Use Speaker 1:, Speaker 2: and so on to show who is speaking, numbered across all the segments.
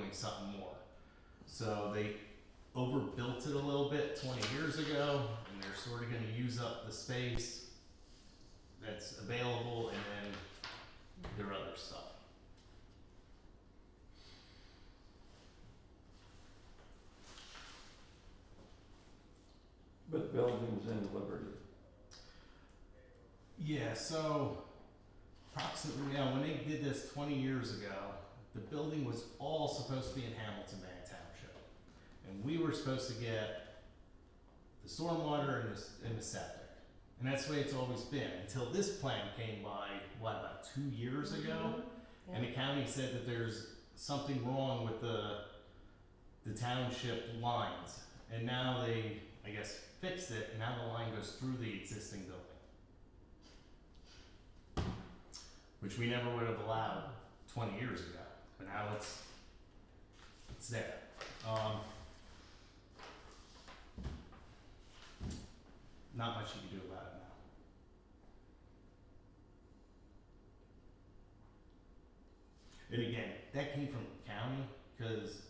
Speaker 1: doing something more. So they overbuilt it a little bit 20 years ago, and they're sort of going to use up the space that's available and then their other stuff.
Speaker 2: But Belgium's in Liberty.
Speaker 1: Yeah, so approximately, yeah, when they did this 20 years ago, the building was all supposed to be in Hamilton Bay Township. And we were supposed to get the stormwater and the, s- and the septic. And that's the way it's always been until this plan came by, what, about two years ago? And the county said that there's something wrong with the, the township lines. And now they, I guess, fixed it, and now the line goes through the existing building. Which we never would have allowed twenty years ago, but now it's, it's there. Um. Not much you can do about it now. And again, that came from the county, cause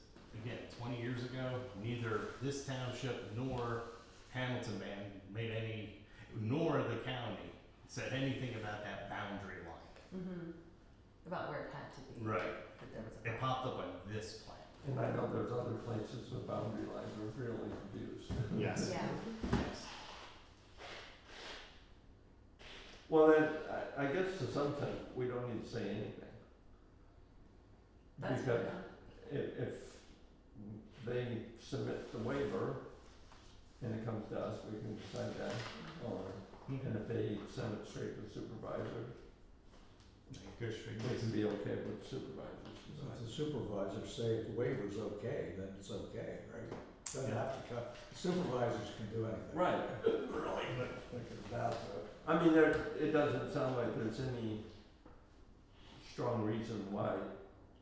Speaker 1: again, twenty years ago, neither this township nor Hamilton Band made any, nor the county said anything about that boundary line.
Speaker 3: Mm-hmm. About where it had to be.
Speaker 1: Right.
Speaker 3: That there was a.
Speaker 1: It popped up on this plan.
Speaker 2: And I know there's other places the boundary lines are really confused.
Speaker 1: Yes.
Speaker 3: Yeah.
Speaker 1: Yes.
Speaker 2: Well, then, I, I guess to some extent, we don't need to say anything.
Speaker 3: That's
Speaker 2: Because
Speaker 3: fair.
Speaker 2: if, if they submit the waiver and it comes to us, we can decide that on. And if they send it straight to supervisor,
Speaker 1: Go straight
Speaker 2: it can be okay with supervisors.
Speaker 4: So if the supervisors say if the waiver's okay, then it's okay, right? Doesn't have to come, supervisors can do anything.
Speaker 2: Right,
Speaker 4: Really, but. They can bow to
Speaker 2: I mean, there, it doesn't sound like there's any strong reason why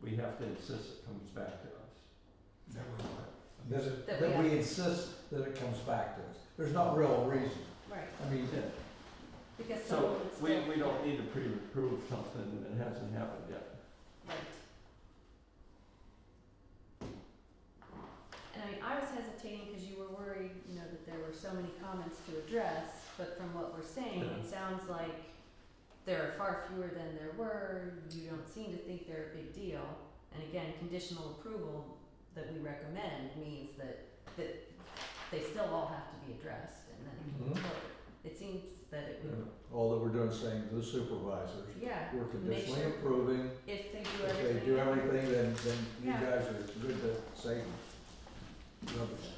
Speaker 2: we have to insist it comes back to us.
Speaker 4: That we want. That it-
Speaker 3: That
Speaker 4: that
Speaker 3: we
Speaker 4: we insist that it comes back to us. There's no real reason.
Speaker 3: Right,
Speaker 4: I mean,
Speaker 2: Yeah.
Speaker 3: because someone
Speaker 2: So,
Speaker 3: would still.
Speaker 2: we, we don't need to pre-approve something that hasn't happened yet.
Speaker 3: Right. And I mean, I was hesitating because you were worried, you know, that there were so many comments to address, but from what we're saying,
Speaker 2: Yeah.
Speaker 3: it sounds like there are far fewer than there were, you don't seem to think they're a big deal. And again, conditional approval that we recommend means that, that they still all have to be addressed and then it can
Speaker 4: Mhm.
Speaker 3: go forward. It seems that it would,
Speaker 4: all that we're doing is saying to the supervisors,
Speaker 3: yeah,
Speaker 4: we're conditionally
Speaker 3: sure-
Speaker 4: approving.
Speaker 3: if they do everything.
Speaker 4: If they do everything, then, then you
Speaker 3: Yeah.
Speaker 4: guys are good to say rubbish.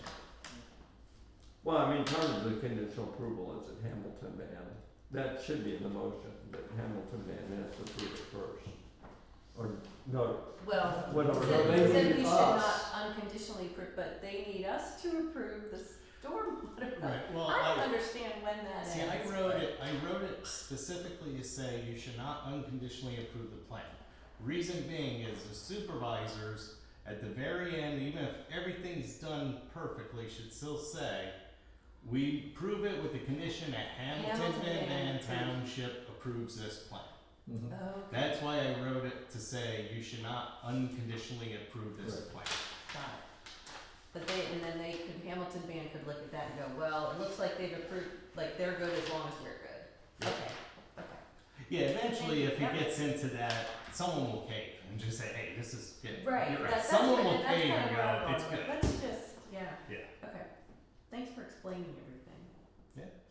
Speaker 2: Well, I mean, part of the conditional approval is that Hamilton Van, that should be in the motion, that Hamilton Van has to approve it first. Or, no,
Speaker 3: Well,
Speaker 2: whatever.
Speaker 4: So
Speaker 3: Said,
Speaker 4: they
Speaker 3: said
Speaker 4: need
Speaker 3: we should not
Speaker 4: us.
Speaker 3: unconditionally approve, but they need us to approve the stormwater.
Speaker 1: Right, well,
Speaker 3: I don't
Speaker 1: I,
Speaker 3: understand when that ends.
Speaker 1: see, I wrote it, I wrote it specifically to say you should not unconditionally approve the plan. Reason being is the supervisors, at the very end, even if everything's done perfectly, should still say, we prove it with the condition that Hamilton
Speaker 3: Hamilton Van
Speaker 1: Van
Speaker 3: approves."
Speaker 1: Township approves this plan.
Speaker 4: Mhm.
Speaker 3: Okay, got
Speaker 1: That's why I wrote it to say you should not unconditionally approve this plan.
Speaker 3: it. But they, and then they could, Hamilton Band could look at that and go, well, it looks like they've approved, like they're good as long as we're good. Okay, okay.
Speaker 1: Yeah, eventually, if it
Speaker 3: Yeah.
Speaker 1: gets into that, someone will cave and just say, "Hey, this is good."
Speaker 3: Right,
Speaker 1: You're
Speaker 3: that-
Speaker 1: right.
Speaker 3: that's, that's
Speaker 1: someone
Speaker 3: kind
Speaker 1: will
Speaker 3: of, that's
Speaker 1: cave and
Speaker 3: kind of where
Speaker 1: go,
Speaker 3: I'm
Speaker 1: "It's
Speaker 3: going with,
Speaker 1: good."
Speaker 3: it. let's just, yeah,
Speaker 1: Yeah.
Speaker 3: okay. Thanks for explaining everything.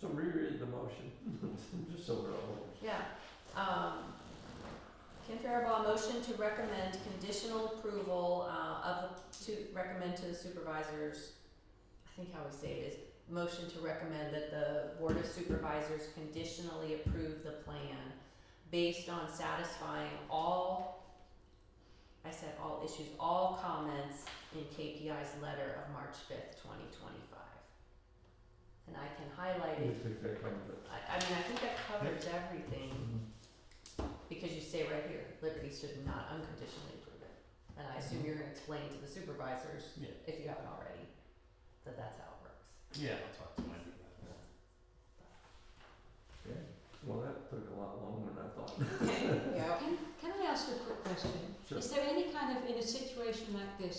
Speaker 2: so reread the motion, just so we're all.
Speaker 3: Yeah, um, Ken Faribault, motion to recommend conditional approval, uh, of, to recommend to the supervisors, I think how we say it is, motion to recommend that the Board of Supervisors conditionally approve the plan based on satisfying all, I said all issues, all comments in KPI's letter of March fifth, twenty twenty-five. And I can highlight it,
Speaker 2: Just think that comes up.
Speaker 3: I, I mean, I think that covers everything. Because you say right here, Liberty should not unconditionally approve it. And I assume you're gonna explain to the supervisors,
Speaker 1: Yeah.
Speaker 3: if you haven't already, that that's how it works.
Speaker 1: Yeah, I'll talk to my about that.
Speaker 4: Okay.
Speaker 2: Well, that took a lot longer than I thought.
Speaker 3: Okay, yeah.
Speaker 5: Can I ask a quick question?
Speaker 2: Sure.
Speaker 5: Is there any kind of, in a situation like this,